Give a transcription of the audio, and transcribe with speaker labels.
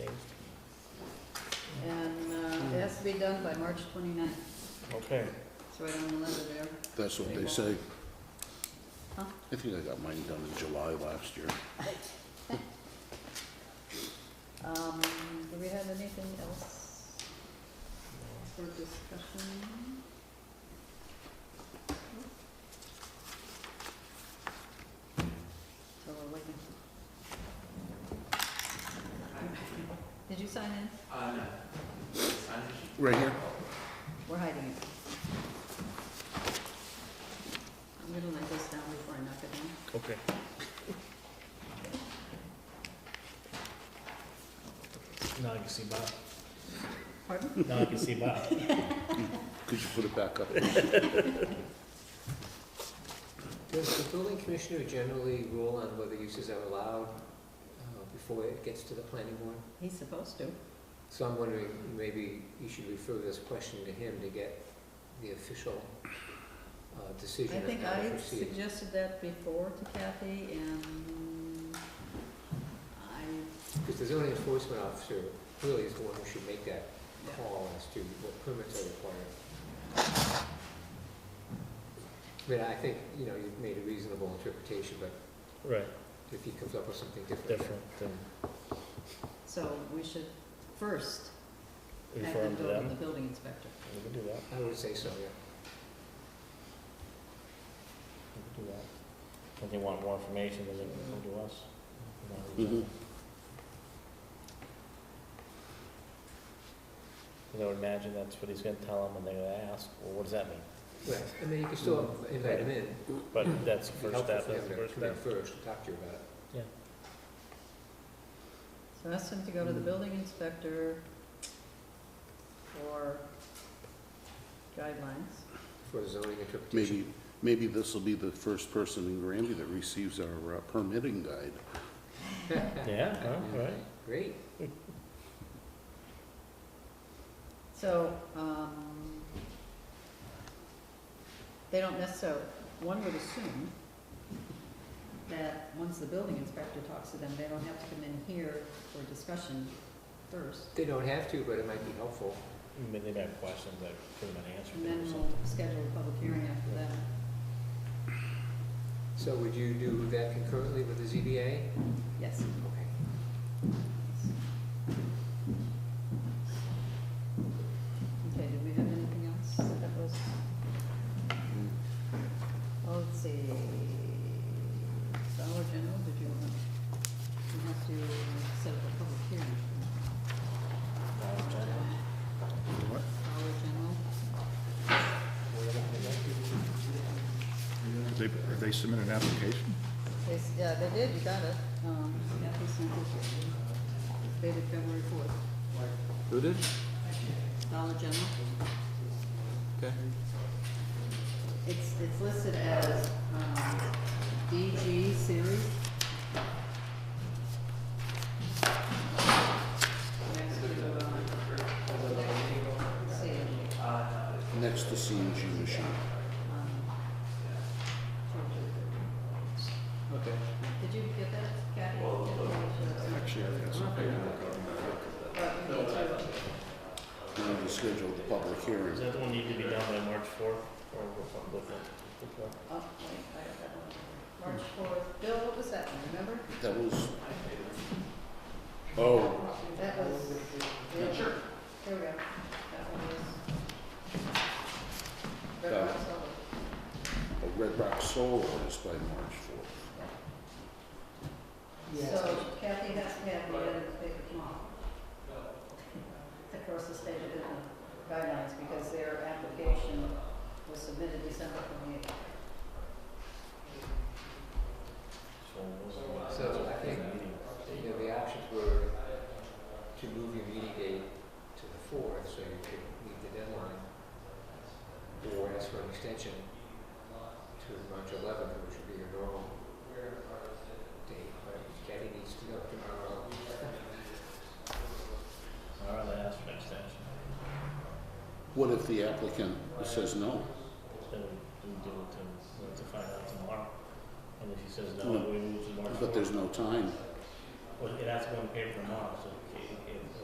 Speaker 1: uh, to be done by March 29th,
Speaker 2: Okay.
Speaker 1: so I don't know whether they're,
Speaker 3: That's what they say.
Speaker 1: Huh?
Speaker 3: I think I got mine done in July last year.
Speaker 1: um, do we have anything else for discussion? So we're waiting. Did you sign in?
Speaker 4: Uh, no.
Speaker 3: Right here?
Speaker 1: We're hiding it. I'm gonna let this down before I knock it down.
Speaker 2: Okay. Now I can see Bob.
Speaker 1: Pardon?
Speaker 2: Now I can see Bob.
Speaker 3: Could you put it back up?
Speaker 4: Does the building commissioner generally rule on whether uses are allowed uh, before it gets to the planning board?
Speaker 1: He's supposed to.
Speaker 4: So I'm wondering, maybe you should refer this question to him to get the official uh,
Speaker 1: I
Speaker 4: decision on
Speaker 1: think
Speaker 4: how to
Speaker 1: I
Speaker 4: proceed.
Speaker 1: suggested that before to Kathy and I,
Speaker 4: Because the zoning enforcement officer really is the one who should make that call as to what permits are required. But I think, you know, you've made a reasonable interpretation, but
Speaker 2: Right,
Speaker 4: if he comes up with something different. then-
Speaker 2: different than
Speaker 1: so we should first have
Speaker 2: referring
Speaker 1: them
Speaker 2: to
Speaker 1: go to the
Speaker 2: them.
Speaker 1: building inspector.
Speaker 2: We can do that,
Speaker 4: I would say so, yeah.
Speaker 2: we can do that. If they want more information, then they can come to us. Mm-hmm.
Speaker 3: Mhm.
Speaker 2: Because I would imagine that's what he's gonna tell them, and they're gonna ask, well, what does that mean?
Speaker 4: Right, I mean, you can still invite him in.
Speaker 2: But that's the
Speaker 4: It'd be
Speaker 2: first
Speaker 4: helpful
Speaker 2: step,
Speaker 4: for
Speaker 2: that's
Speaker 4: him
Speaker 2: the
Speaker 4: to
Speaker 2: first
Speaker 4: come in
Speaker 2: step.
Speaker 4: first and talk to you about it.
Speaker 1: So ask them to go to the
Speaker 2: Mm.
Speaker 1: building inspector for guidelines.
Speaker 4: for zoning interpretation.
Speaker 3: Maybe, maybe this will be the first person in Granby that receives our uh, permitting guide.
Speaker 2: Yeah, huh, right?
Speaker 4: Great.
Speaker 1: So, um, they don't necessarily, one would assume that once the building inspector talks to them, they don't have to come in here for discussion first.
Speaker 4: They don't have to, but it might be helpful.
Speaker 2: I mean, they might have questions that could have been answered
Speaker 1: And then
Speaker 2: or
Speaker 1: we'll
Speaker 2: something.
Speaker 1: schedule a public hearing after that.
Speaker 4: So would you do that concurrently with the ZBA?
Speaker 1: Yes.
Speaker 4: Okay.
Speaker 1: Okay, did we have anything else that was? Oh, let's see. Dollar General, did you want, you have to set up a public hearing.
Speaker 2: Dollar General?
Speaker 3: What?
Speaker 1: Dollar General,
Speaker 5: They, they submit an application?
Speaker 1: they, s- yeah, they did, you got it. Um, Kathy sent it to you. dated February fourth.
Speaker 5: Who did?
Speaker 1: Dollar General.
Speaker 5: Okay.
Speaker 1: It's, it's listed as, um, DG series. Next to, um, see,
Speaker 3: Next to CNG machine.
Speaker 1: um,
Speaker 4: Okay.
Speaker 1: did you get that, Kathy?
Speaker 5: Actually, I've got some paperwork on
Speaker 1: Or Oh, you need to-
Speaker 3: We need to schedule the public
Speaker 2: Does
Speaker 3: hearing.
Speaker 2: that one need to be done by March fourth, or will something different?
Speaker 1: Oh, wait, I got that one. March fourth, Bill, what was that one, remember?
Speaker 3: That was, oh,
Speaker 1: That was. Sure. There we go. That one was. Red
Speaker 3: Uh,
Speaker 1: Rock Solid.
Speaker 3: a Red Rock Solar is by March 4th.
Speaker 1: So Kathy has to have the other paper tomorrow. Of course, the state of the guidelines, because their application was submitted December twenty-eighth.
Speaker 4: So I think, you know, the options were to move your meeting date to the fourth, so you could meet the deadline, or ask for an extension to March eleventh, which would be your normal date, but Kathy needs to know tomorrow.
Speaker 2: All right, they asked for an extension,
Speaker 3: What if the applicant says no?
Speaker 2: then we do it to, we'll have to find out tomorrow. And if he says no,
Speaker 3: No,
Speaker 2: we move to March fourth.
Speaker 3: But there's no time.
Speaker 2: Well, it has to go in paper tomorrow, so it can't-